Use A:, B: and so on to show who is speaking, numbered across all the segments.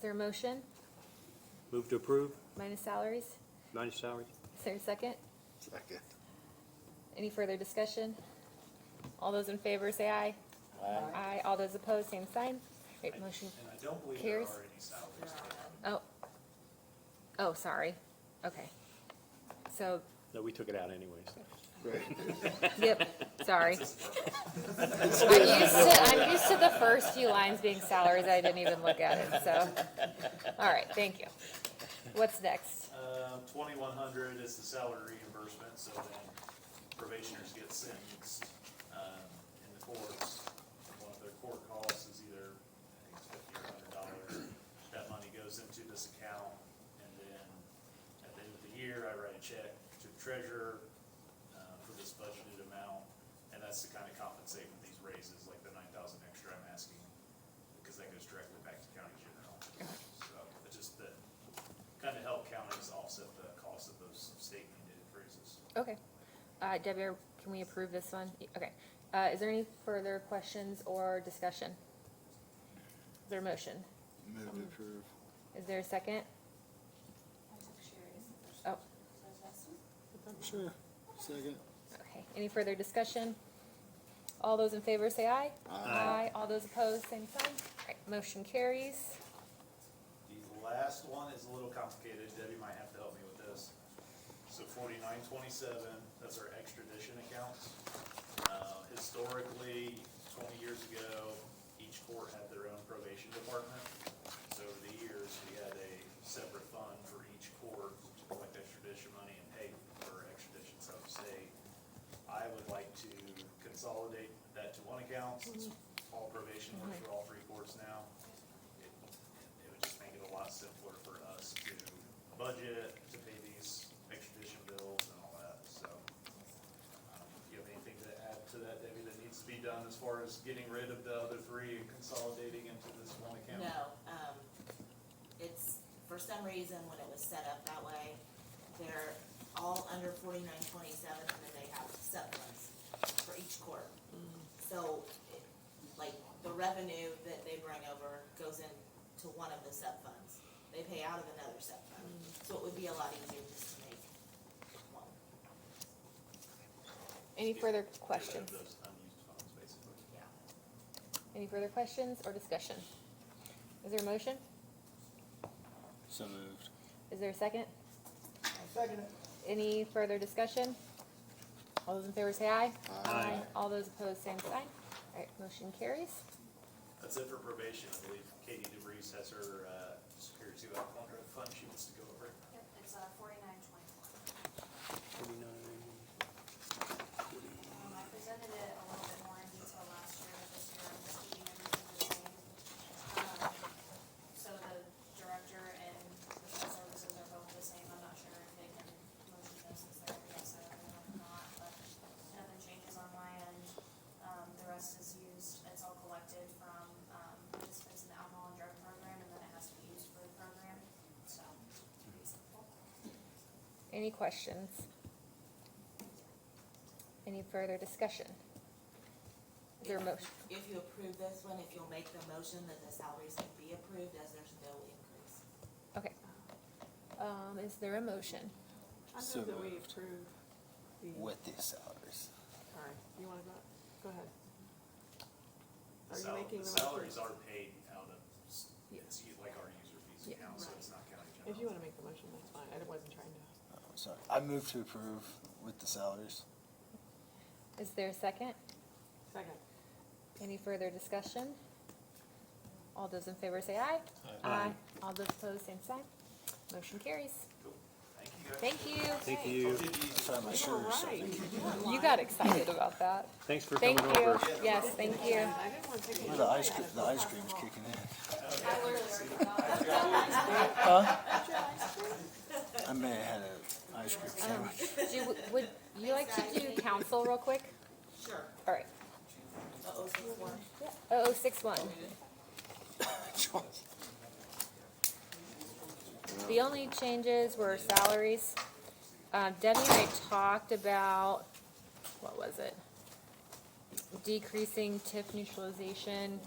A: there a motion?
B: Move to approve,
A: Minus salaries?
B: minus salary.
A: Is there a second?
C: Second.
A: Any further discussion? All those in favor say aye. Aye. All those opposed, same sign. Great, motion.
D: And I don't believe there are
A: Carries.
D: any salaries.
A: Oh. Oh, sorry. Okay. So,
B: No, we took it out anyways.
A: yep, sorry. I'm used to, I'm used to the first few lines being salaries. I didn't even look at it, so. All right, thank you. What's next?
D: Um, twenty-one hundred is the salary reimbursement, so then probationers get sentenced, um, in the courts. One of their court costs is either, I think it's fifty or hundred dollars. That money goes into this account, and then at the end of the year, I write a check to the treasurer, uh, for this budgeted amount. And that's to kind of compensate for these raises, like the nine thousand extra I'm asking, because that goes directly back to county general. So, it just, that kind of help counties offset the cost of those state mandated freezes.
A: Okay. Uh, Debbie, are- can we approve this one? Y- Okay. Uh, is there any further questions or discussion? Is there a motion?
C: Move to approve.
A: Is there a second? Oh,
C: Sure. Second.
A: okay. Any further discussion? All those in favor say aye. Aye. All those opposed, same sign. All right, motion carries.
D: The last one is a little complicated, Debbie might have to help me with this. So forty-nine twenty-seven, that's our extradition accounts. Uh, historically, twenty years ago, each court had their own probation department. So over the years, we had a separate fund for each court to collect extradition money and pay for extradition out of state. I would like to consolidate that to one account, since all probation works for all three courts now. It it would just make it a lot simpler for us to budget, to pay these extradition bills and all that, so. um, Do you have anything to add to that, Debbie, that needs to be done as far as getting rid of the other three and consolidating into this one account?
E: No, um, it's, for some reason, when it was set up that way, they're all under forty-nine twenty-seven, and then they have sub-ones for each court. So, it- like, the revenue that they bring over goes into one of the sub-funds. They pay out of another sub-fund, so it would be a lot easier just to make one.
A: Any further
D: Get rid
A: questions?
D: of those unused funds, basically.
E: Yeah.
A: Any further questions or discussion? Is there a motion?
C: So moved.
A: Is there a second? Any further discussion? All those in favor say aye.
C: Aye.
A: All those opposed, same sign. All right, motion carries.
D: That's it for probation, I believe Katie DeBreeze has her, uh, Superior Two Alcohol Drug Fund she wants to go over.
F: Yep, it's uh forty-nine twenty-one. Um, I presented it a little bit more in detail last year, but this year I'm just keeping everything the same. Um, So the director and professional services are both the same, I'm not sure if they can motion this as their yes item or not, but nothing changes on my end. Um, the rest is used, it's all collected from, um, participants in the alcohol and drug program, and then it has to be used for the program, so, pretty simple.
A: Any questions? Any further discussion? Is there a motion?
E: If you approve this one, if you'll make the motion that the salaries can be approved as there's no increase.
A: Okay. Um, is there a motion?
G: I
C: So
G: move that we
C: moved.
G: approve the, all
C: With these salaries.
G: right, you wanna go, go ahead.
D: The
G: Are you
D: sal-
G: making the
D: Salaries
G: motion?
D: are paid out of, s-
A: Yeah.
D: it's u- like our user fees
A: Yeah.
D: account, so it's not county general.
G: If you wanna make the motion, that's fine, I wasn't trying to.
C: Oh, Sorry, I move to approve with the salaries.
A: Is there a second?
G: Second.
A: Any further discussion? All those in favor say aye. Aye. All those opposed, same sign. Motion carries.
D: Cool. Thank you guys.
A: Thank you.
B: Thank you.
D: Did you-
C: Sorry, my
G: You were
C: shirt or
G: right.
C: something.
A: You got excited about that.
B: Thanks for coming
A: Thank you.
B: over.
A: Yes, thank you.
G: I didn't wanna take it.
C: Ooh, The ice, cre- the ice cream's kicking in.
F: I literally forgot.
C: I may have had an ice cream sandwich.
A: Um, Do, you- would you like to do council real quick?
E: Sure.
A: All right.
E: Uh-oh, so it's one.
A: Oh, six one. The only changes were salaries. Um, Debbie and I talked about, what was it? Decreasing TIF neutralization,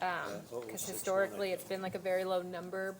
A: um,
B: what was
A: cause um,
B: 6-1, I
A: historically, it's been like a very low number,